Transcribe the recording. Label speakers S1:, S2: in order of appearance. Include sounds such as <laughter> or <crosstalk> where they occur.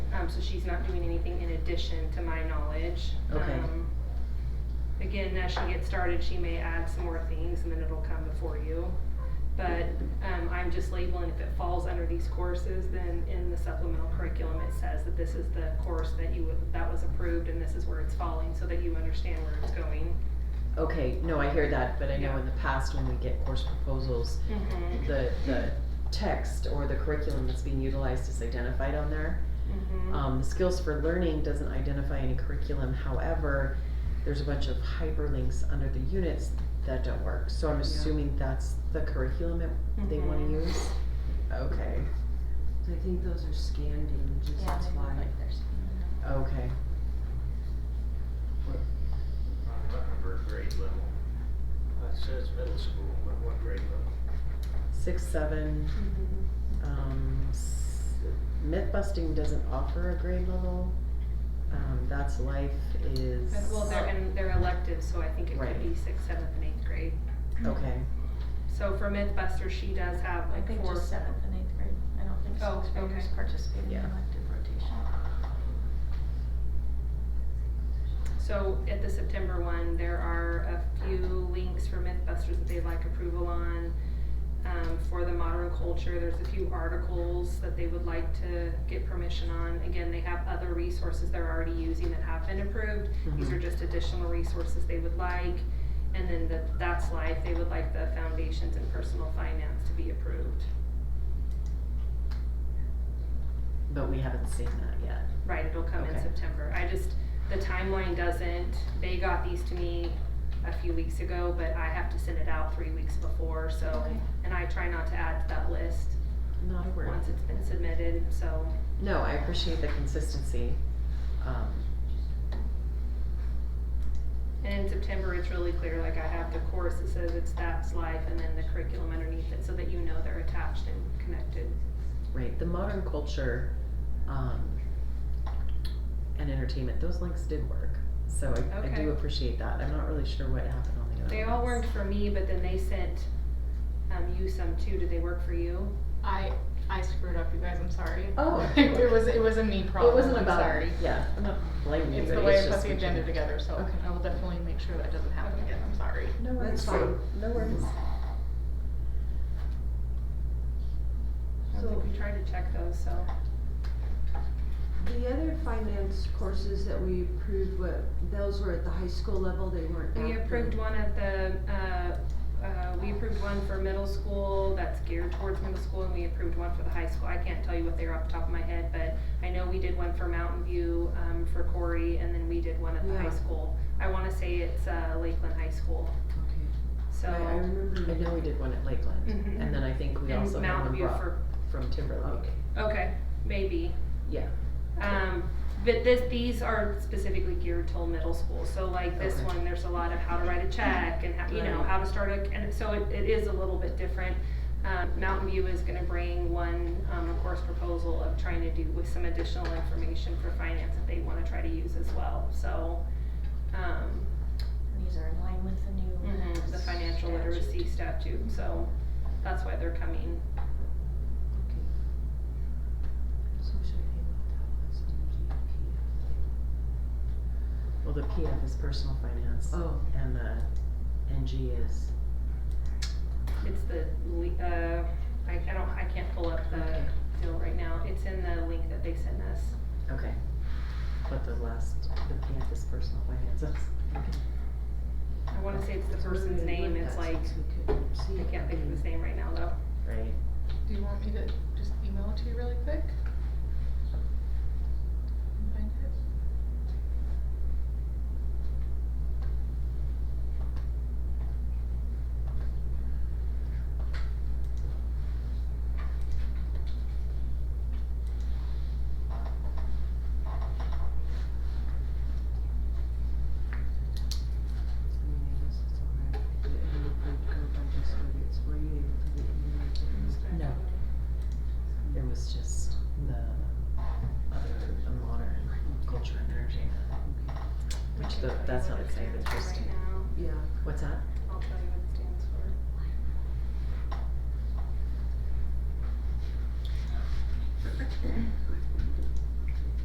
S1: Um, so she's not doing anything in addition to my knowledge.
S2: Okay.
S1: Um, Again, as she gets started, she may add some more things and then it'll come before you. But, um, I'm just labeling if it falls under these courses, then in the supplemental curriculum, it says that this is the course that you, would- that was approved and this is where it's falling, so that you understand where it's going.
S2: Okay, no, I hear that, but I know
S1: Yeah.
S2: in the past when we get course proposals,
S1: Mm-hmm,
S2: the, the text or the curriculum that's being utilized is identified on there.
S1: mm-hmm.
S2: Um, the skills for learning doesn't identify any curriculum, however, there's a bunch of hyperlinks under the units that don't work. So I'm assuming that's the curriculum that they wanna
S1: Mhm.
S2: use? Okay,
S3: I think those are scanned images,
S4: Yeah,
S3: that's
S4: they look
S3: why.
S4: like they're
S2: okay.
S5: on Ruttenberg grade level. Uh, It says middle school, but what grade level?
S2: Six, seven,
S1: Mhm.
S4: Mm-hmm.
S2: um, s- myth busting doesn't offer a grade level. Um, that's life is,
S1: But, Well, they're, and they're elective, so I think it
S2: Right.
S1: could be sixth, seventh, and eighth grade.
S2: okay,
S1: So for Mythbusters, she does have
S4: I
S1: like
S4: think
S1: four.
S4: just seventh and eighth grade, I don't think
S1: Oh,
S4: sixth graders
S1: okay.
S4: participate in
S2: Yeah.
S4: elective rotation.
S1: Mm-hmm. So at the September one, there are a few links for Mythbusters that they'd like approval on. Um, for the modern culture, there's a few articles that they would like to get permission on. Again, they have other resources they're already using that have been approved. These
S2: Mhm.
S1: are just additional resources they would like. And then the That's Life, they would like the foundations and personal finance to be approved.
S2: but we haven't seen that yet.
S1: Right, it'll come in
S2: Okay.
S1: September. I just, the timeline doesn't, they got these to me a few weeks ago, but I have to send it out three weeks before, so.
S4: Okay.
S1: And I try not to add to that list
S2: Not a word.
S1: once it's been submitted, so.
S2: No, I appreciate the consistency. Um,
S1: And in September, it's really clear, like I have the course that says it's that's life and then the curriculum underneath it, so that you know they're attached and connected.
S2: right, the modern culture, um, and entertainment, those links did work. So I, I
S1: Okay.
S2: do appreciate that. I'm not really sure what happened on the other
S1: They all
S2: ones.
S1: worked for me, but then they sent, um, you some too. Did they work for you?
S6: I I screwed up, you guys. I'm sorry.
S2: Oh.
S6: <laughs> it was it was a me problem.
S2: It wasn't
S6: I'm
S2: about,
S6: Sorry.
S2: yeah, I'm not blaming you,
S6: It's
S2: but
S6: the way I
S2: it's
S6: put
S2: just
S6: the
S2: what you
S6: agenda
S2: did.
S6: together, so
S2: Okay.
S6: I will definitely make sure that doesn't happen again. I'm sorry.
S2: No worries,
S3: That's fine.
S2: no worries.
S1: I don't think we tried to check those, so.
S3: The other finance courses that we approved, what, those were at the high school level, they weren't
S1: We
S3: at
S1: approved
S3: the-
S1: one at the, uh, uh, we approved one for middle school that's geared towards middle school, and we approved one for the high school. I can't tell you what they are off the top of my head, but I know we did one for Mountain View, um, for Corey, and then we did one at the high
S3: Yeah.
S1: school. I wanna say it's, uh, Lakeland High School,
S3: Okay,
S1: so.
S3: I, I remember.
S2: I
S3: you-
S2: know we did one at Lakeland,
S1: Mhm.
S2: and then I think we
S1: And
S2: also had
S1: Mountain
S2: one
S1: View
S2: brought
S1: for,
S2: from Timberlake.
S1: okay, maybe.
S2: Yeah.
S1: Um, but this, these are specifically geared to middle school, so like this
S2: Okay.
S1: one, there's a lot of how to write a check and how, you know,
S2: Right.
S1: how to start a, and so it, it is a little bit different. Um, Mountain View is gonna bring one, um, course proposal of trying to do with some additional information for finance that they wanna try to use as well, so. Um,
S4: And these are in line with the new.
S1: Mm-hmm.
S2: Mm-hmm.
S1: the financial
S4: statute.
S1: literacy statute, so that's why they're coming.
S3: So should I name it that was DPP?
S2: Well, the PF is personal finance,
S3: Oh,
S2: and the NG is
S1: It's the, le- uh, I, I don't, I can't pull up
S2: Okay.
S1: the deal right now, it's in the link that they sent us.
S2: Okay. But the last, the PF is personal <laughs> finances.
S1: I wanna say it's the
S3: that's what
S1: person's
S3: we
S1: name,
S3: looked
S1: it's
S3: at
S1: like,
S3: since we couldn't see
S1: I
S3: it.
S1: can't think of his name right now though.
S2: Right.
S6: Do you want me to just email it to you really quick? And find it?
S3: I mean, I guess it's all right. If it really approved, go by this, but it's- were you able to get any of the difference?
S2: No. It was just the other, the modern culture and entertainment.
S3: Okay.
S2: Which the, that's not exciting, it's just,
S1: Right now,
S3: Yeah,
S2: what's that?
S1: I'll tell you what it stands for.